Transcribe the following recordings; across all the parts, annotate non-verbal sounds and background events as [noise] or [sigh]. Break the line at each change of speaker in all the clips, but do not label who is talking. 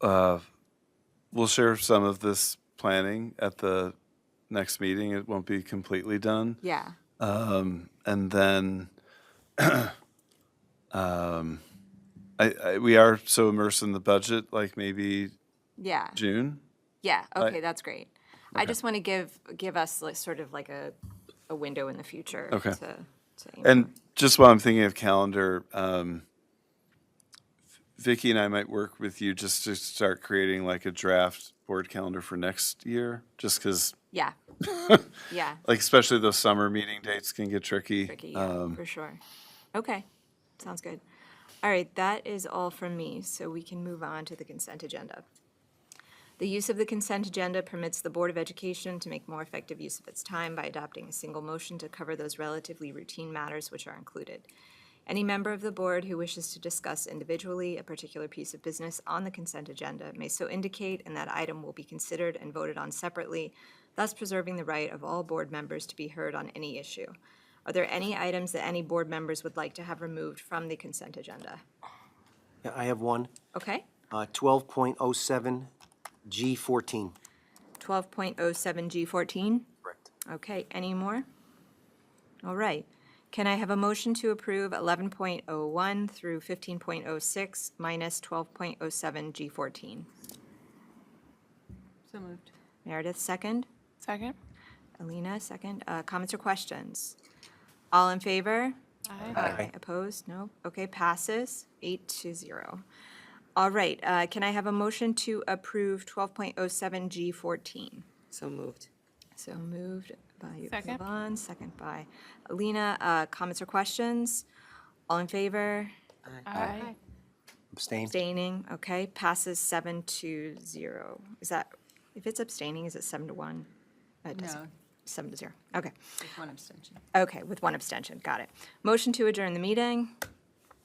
uh, we'll share some of this planning at the next meeting. It won't be completely done.
Yeah.
And then [clears throat] um, I, I, we are so immersed in the budget, like maybe
Yeah.
June.
Yeah.
I-
Okay, that's great. I just want to give give us like sort of like a a window in the future.
Okay.
To, to aim for.
And just while I'm thinking of calendar, um, Vicky and I might work with you just to start creating like a draft board calendar for next year, just because, [laughs]
yeah. yeah.
like, especially those summer meeting dates can get tricky.
Tricky, yeah, for sure. Okay. Sounds good. All right, that is all from me, so we can move on to the consent agenda. The use of the consent agenda permits the Board of Education to make more effective use of its time by adopting a single motion to cover those relatively routine matters which are included. Any member of the board who wishes to discuss individually a particular piece of business on the consent agenda may so indicate, and that item will be considered and voted on separately, thus preserving the right of all board members to be heard on any issue. Are there any items that any board members would like to have removed from the consent agenda?
Yeah, I have one.
Okay,
Uh, 12.07, G14.
twelve point oh seven G fourteen?
Correct.
Okay, any more? All right. Can I have a motion to approve eleven point oh one through fifteen point oh six minus twelve point oh seven G fourteen?
So moved.
Meredith, second.
Second?
Alina, second. Uh, Comments or questions? All in favor?
Aye.
Aye. Opposed? No? Okay, passes eight to zero. All right, uh, can I have a motion to approve 12.07 G14?
So moved.
So moved by
Second.
Yvonne, second by Alina. Uh, Comments or questions? All in favor?
Aye.
Abstain.
Abstaining, okay, passes seven to zero. Is that, if it's abstaining, is it seven to one? It doesn't-
No.
Seven to zero, okay.
One abstention.
Okay, with one abstention, got it. Motion to adjourn the meeting,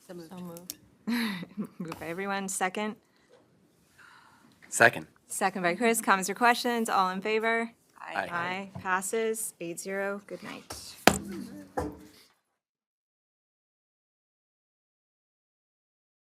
So moved. So moved.
[laughs] moved by everyone, second.
Second.
Second by Chris. Comments or questions? All in favor?
Aye.
Aye. Passes eight zero. Good night.